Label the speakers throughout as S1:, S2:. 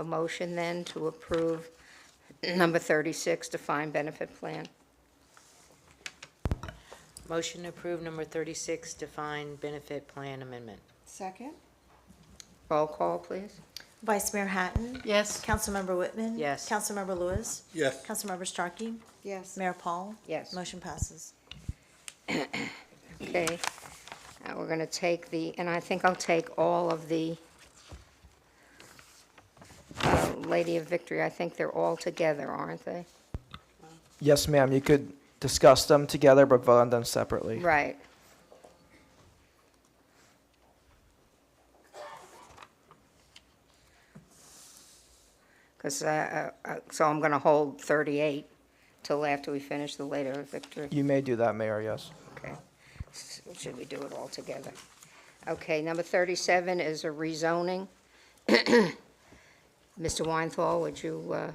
S1: A motion then to approve number 36, defined benefit plan.
S2: Motion to approve number 36, defined benefit plan amendment.
S3: Second?
S1: Roll call, please.
S4: Vice Mayor Hatton?
S5: Yes.
S4: Councilmember Whitman?
S2: Yes.
S4: Councilmember Lewis?
S6: Yes.
S4: Councilmember Starkey?
S3: Yes.
S4: Mayor Paul?
S1: Yes.
S4: Motion passes.
S1: Okay, now we're going to take the, and I think I'll take all of the uh, Lady of Victory, I think they're all together, aren't they?
S7: Yes, ma'am. You could discuss them together, but vote on them separately.
S1: Right. Because, uh, so I'm going to hold 38 till after we finish the Lady of Victory.
S7: You may do that, Mayor, yes.
S1: Okay, S- should we do it all together? Okay, number 37 is a rezoning. Mr. Weinthal, would you uh,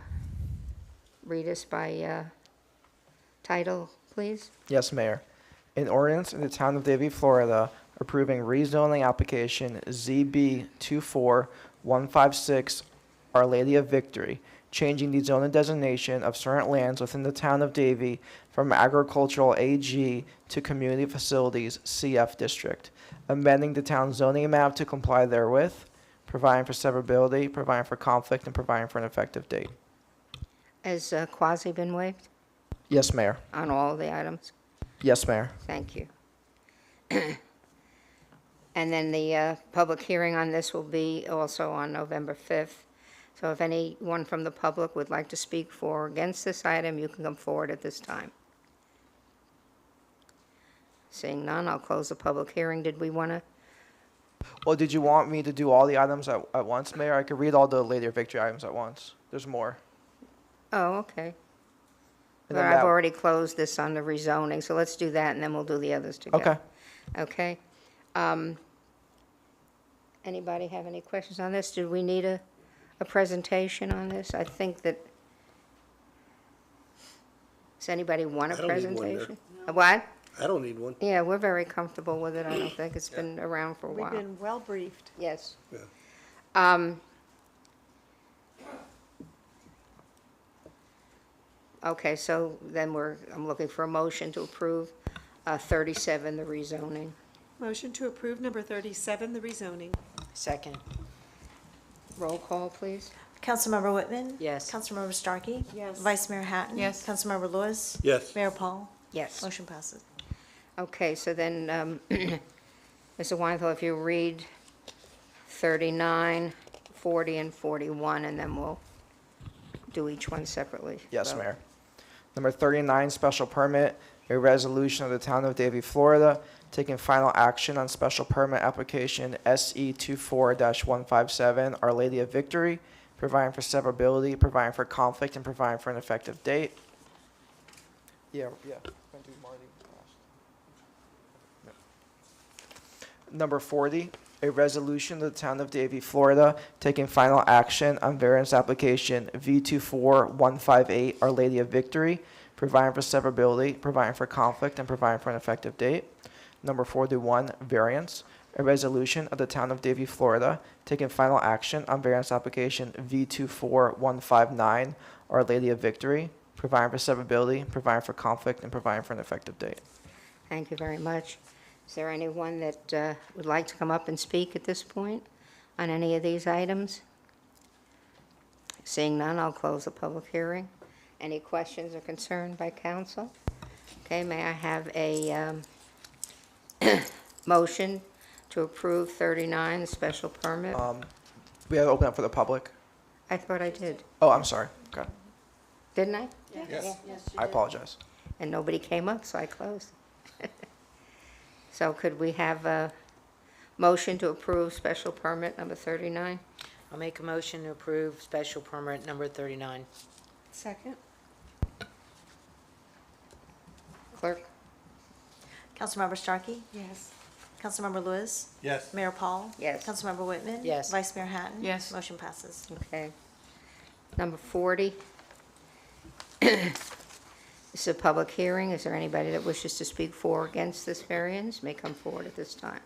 S1: read us by uh, title, please?
S7: Yes, Mayor. An ordinance in the town of Davie, Florida, approving rezoning application ZB 24156 Our Lady of Victory, changing the zoning designation of certain lands within the town of Davie from agricultural AG to community facilities CF district, amending the town zoning map to comply therewith, providing for severability, providing for conflict, and providing for an effective date.
S1: Has uh, quasi been waived
S7: Yes, Mayor.
S1: on all the items?
S7: Yes, Mayor.
S1: Thank you. And then the uh, public hearing on this will be also on November 5th. So if anyone from the public would like to speak for or against this item, you can come forward at this time. Seeing none, I'll close the public hearing. Did we want to?
S7: Well, did you want me to do all the items at, at once, Mayor? I could read all the later victory items at once. There's more.
S1: Oh, okay.
S7: And
S1: But
S7: then
S1: I've
S7: that-
S1: already closed this on the rezoning, so let's do that, and then we'll do the others together.
S7: Okay.
S1: Okay. Um, Anybody have any questions on this? Did we need a, a presentation on this? I think that, does anybody want a
S6: I don't need one, Mayor.
S1: presentation? A What?
S6: I don't need one.
S1: Yeah, we're very comfortable with it, I don't think. It's been around for a
S3: We've
S1: while.
S3: been well briefed.
S1: Yes.
S6: Yeah.
S1: Um, Okay, so then we're, I'm looking for a motion to approve uh, 37, the rezoning.
S3: Motion to approve number 37, the rezoning.
S2: Second.
S1: Roll call, please.
S4: Councilmember Whitman?
S2: Yes.
S4: Councilmember Starkey?
S3: Yes.
S4: Vice Mayor Hatton?
S5: Yes.
S4: Councilmember Lewis?
S6: Yes.
S4: Mayor Paul?
S1: Yes.
S4: Motion passes.
S1: Okay, so then, um, Mr. Weinthal, if you read 39, 40, and 41, and then we'll do each one separately.
S7: Yes,
S1: So-
S7: Mayor. Number 39, special permit, a resolution of the town of Davie, Florida, taking final action on special permit application E SE 24-157, Our Lady of Victory, providing for severability, providing for conflict, and providing for an effective date. Yeah, yeah. Gonna do Marty last. No. Number 40, a resolution of the town of Davie, Florida, taking final action on variance application V24158, Our Lady of Victory, providing for severability, providing for conflict, and providing for an effective date. Number 41, variance, a resolution of the town of Davie, Florida, taking final action on variance application V24159, Our Lady of Victory, providing for severability, providing for conflict, and providing for an effective date.
S1: Thank you very much. Is there anyone that uh, would like to come up and speak at this point on any of these items? Seeing none, I'll close the public hearing. Any questions or concern by council? Okay, may I have a um, motion to approve 39, the special permit?
S7: Um, We have to open up for the public.
S1: I thought I did,
S7: Oh, I'm sorry. Okay.
S1: didn't I?
S6: Yes.
S7: I apologize.
S1: And nobody came up, so I closed. So could we have a motion to approve special permit number 39?
S2: I'll make a motion to approve special permit number 39.
S3: Second?
S1: Clerk?
S4: Councilmember Starkey?
S3: Yes.
S4: Councilmember Lewis?
S6: Yes.
S4: Mayor Paul?
S1: Yes.
S4: Councilmember Whitman?
S2: Yes.
S4: Vice Mayor Hatton?
S5: Yes.
S4: Motion passes.
S1: Okay. Number 40. This is a public hearing. Is there anybody that wishes to speak for or against this variance? May come forward at this time.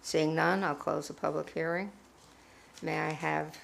S1: Seeing none, I'll close the public hearing. May I have